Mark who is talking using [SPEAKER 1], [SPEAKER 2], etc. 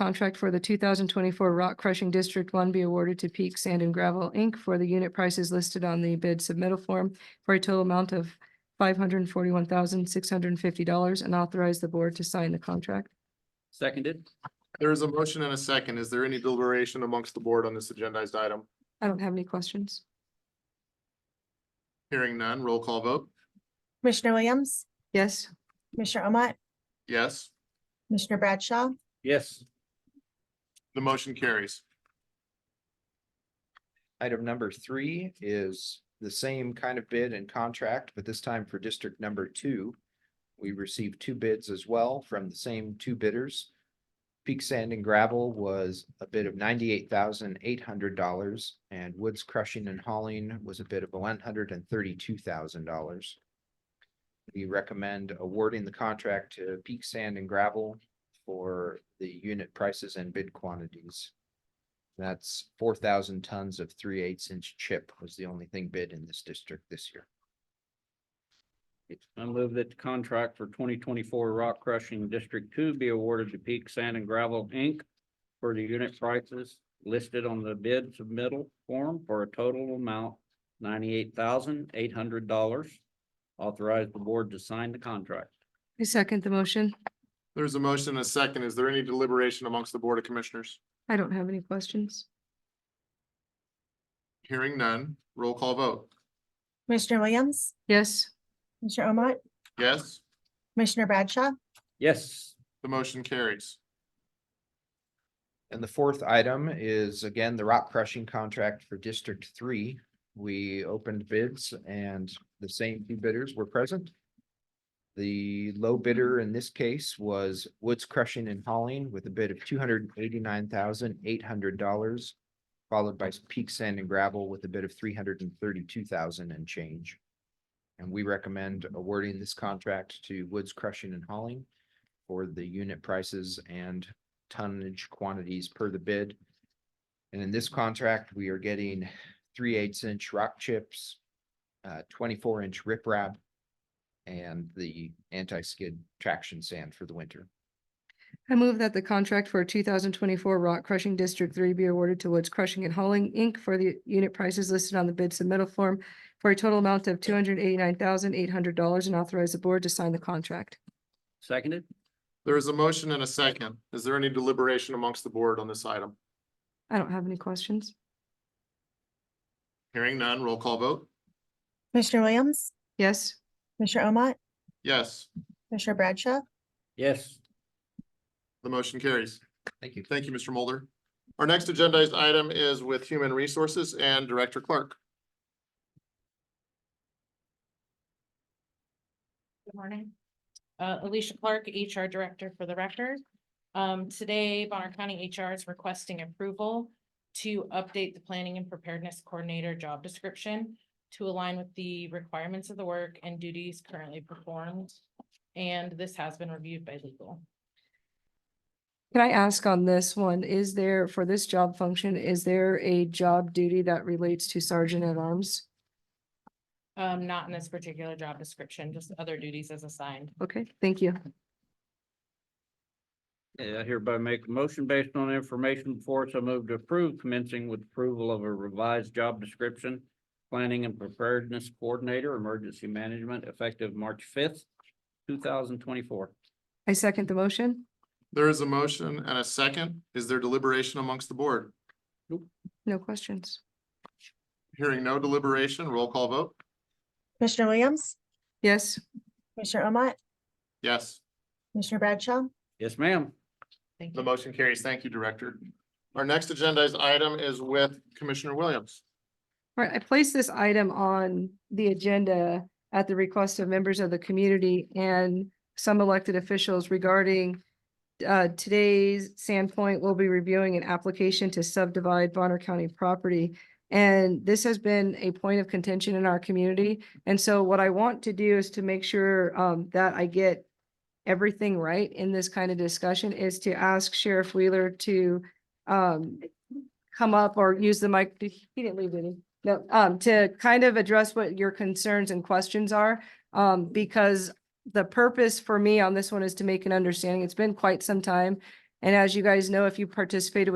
[SPEAKER 1] Contract for the two thousand twenty-four rock crushing District One be awarded to Peak Sand and Gravel, Inc. for the unit prices listed on the bid submittal form for a total amount of five hundred and forty-one thousand, six hundred and fifty dollars and authorize the board to sign the contract.
[SPEAKER 2] Seconded.
[SPEAKER 3] There is a motion and a second. Is there any deliberation amongst the board on this agendized item?
[SPEAKER 1] I don't have any questions.
[SPEAKER 3] Hearing none, roll call vote.
[SPEAKER 4] Commissioner Williams,
[SPEAKER 1] Yes,
[SPEAKER 4] Commissioner Omat,
[SPEAKER 3] Yes,
[SPEAKER 4] Commissioner Bradshaw,
[SPEAKER 2] Yes.
[SPEAKER 3] the motion carries.
[SPEAKER 5] Item number three is the same kind of bid and contract, but this time for district number two. We received two bids as well from the same two bidders. Peak Sand and Gravel was a bid of ninety-eight thousand eight hundred dollars and Woods Crushing and Hauling was a bid of one hundred and thirty-two thousand dollars. We recommend awarding the contract to Peak Sand and Gravel for the unit prices and bid quantities. That's four thousand tons of three eighths inch chip was the only thing bid in this district this year.
[SPEAKER 2] I move that the contract for twenty twenty-four rock crushing District Two be awarded to Peak Sand and Gravel, Inc. For the unit prices listed on the bid submittal form for a total amount ninety-eight thousand eight hundred dollars. Authorize the board to sign the contract.
[SPEAKER 1] I second the motion.
[SPEAKER 3] There's a motion and a second. Is there any deliberation amongst the Board of Commissioners?
[SPEAKER 1] I don't have any questions.
[SPEAKER 3] Hearing none, roll call vote.
[SPEAKER 4] Commissioner Williams,
[SPEAKER 1] Yes,
[SPEAKER 4] Commissioner Omat,
[SPEAKER 3] Yes,
[SPEAKER 4] Commissioner Bradshaw,
[SPEAKER 2] Yes,
[SPEAKER 3] the motion carries.
[SPEAKER 5] And the fourth item is again the rock crushing contract for District Three. We opened bids and the same two bidders were present. The low bidder in this case was Woods Crushing and Hauling with a bid of two hundred eighty-nine thousand eight hundred dollars. Followed by Peak Sand and Gravel with a bid of three hundred and thirty-two thousand and change. And we recommend awarding this contract to Woods Crushing and Hauling for the unit prices and tonnage quantities per the bid. And in this contract, we are getting three eighths inch rock chips, uh, twenty-four inch riprap, and the anti-skid traction sand for the winter.
[SPEAKER 1] I move that the contract for two thousand twenty-four rock crushing District Three be awarded to Woods Crushing and Hauling, Inc. for the unit prices listed on the bid submittal form for a total amount of two hundred eighty-nine thousand, eight hundred dollars and authorize the board to sign the contract.
[SPEAKER 2] seconded.
[SPEAKER 3] There is a motion and a second. Is there any deliberation amongst the board on this item?
[SPEAKER 1] I don't have any questions.
[SPEAKER 3] Hearing none, roll call vote.
[SPEAKER 4] Commissioner Williams,
[SPEAKER 1] Yes,
[SPEAKER 4] Commissioner Omat,
[SPEAKER 3] Yes,
[SPEAKER 4] Commissioner Bradshaw,
[SPEAKER 2] Yes,
[SPEAKER 3] the motion carries.
[SPEAKER 5] Thank you.
[SPEAKER 3] Thank you, Mr. Mulder. Our next agendized item is with Human Resources and Director Clark.
[SPEAKER 6] Good morning. Uh, Alicia Clark, HR Director for the record. Um, today Bonner County HR is requesting approval to update the Planning and Preparedness Coordinator job description to align with the requirements of the work and duties currently performed. And this has been reviewed by legal.
[SPEAKER 1] can I ask on this one, is there, for this job function, is there a job duty that relates to sergeant at arms?
[SPEAKER 6] Um, not in this particular job description, just other duties as assigned.
[SPEAKER 1] Okay, thank you.
[SPEAKER 2] Yeah, I hereby make a motion based on information before us. I move to approve commencing with approval of a revised job description. Planning and Preparedness Coordinator, Emergency Management, effective March fifth, two thousand twenty-four.
[SPEAKER 1] I second the motion.
[SPEAKER 3] There is a motion and a second. Is there deliberation amongst the board?
[SPEAKER 1] No questions.
[SPEAKER 3] Hearing no deliberation, roll call vote.
[SPEAKER 4] Commissioner Williams,
[SPEAKER 1] Yes,
[SPEAKER 4] Commissioner Omat,
[SPEAKER 3] Yes,
[SPEAKER 4] Commissioner Bradshaw,
[SPEAKER 2] Yes, ma'am.
[SPEAKER 6] Thank
[SPEAKER 3] the
[SPEAKER 6] you.
[SPEAKER 3] motion carries. Thank you, Director. Our next agendized item is with Commissioner Williams.
[SPEAKER 1] Right, I placed this item on the agenda at the request of members of the community and some elected officials regarding uh, today's Sandpoint will be reviewing an application to subdivide Bonner County property. And this has been a point of contention in our community. And so what I want to do is to make sure um, that I get everything right in this kind of discussion is to ask Sheriff Wheeler to um, come up or use the mic. He didn't leave, did he? No, um, to kind of address what your concerns and questions are, um, because the purpose for me on this one is to make an understanding. It's been quite some time And as you guys know, if you participated with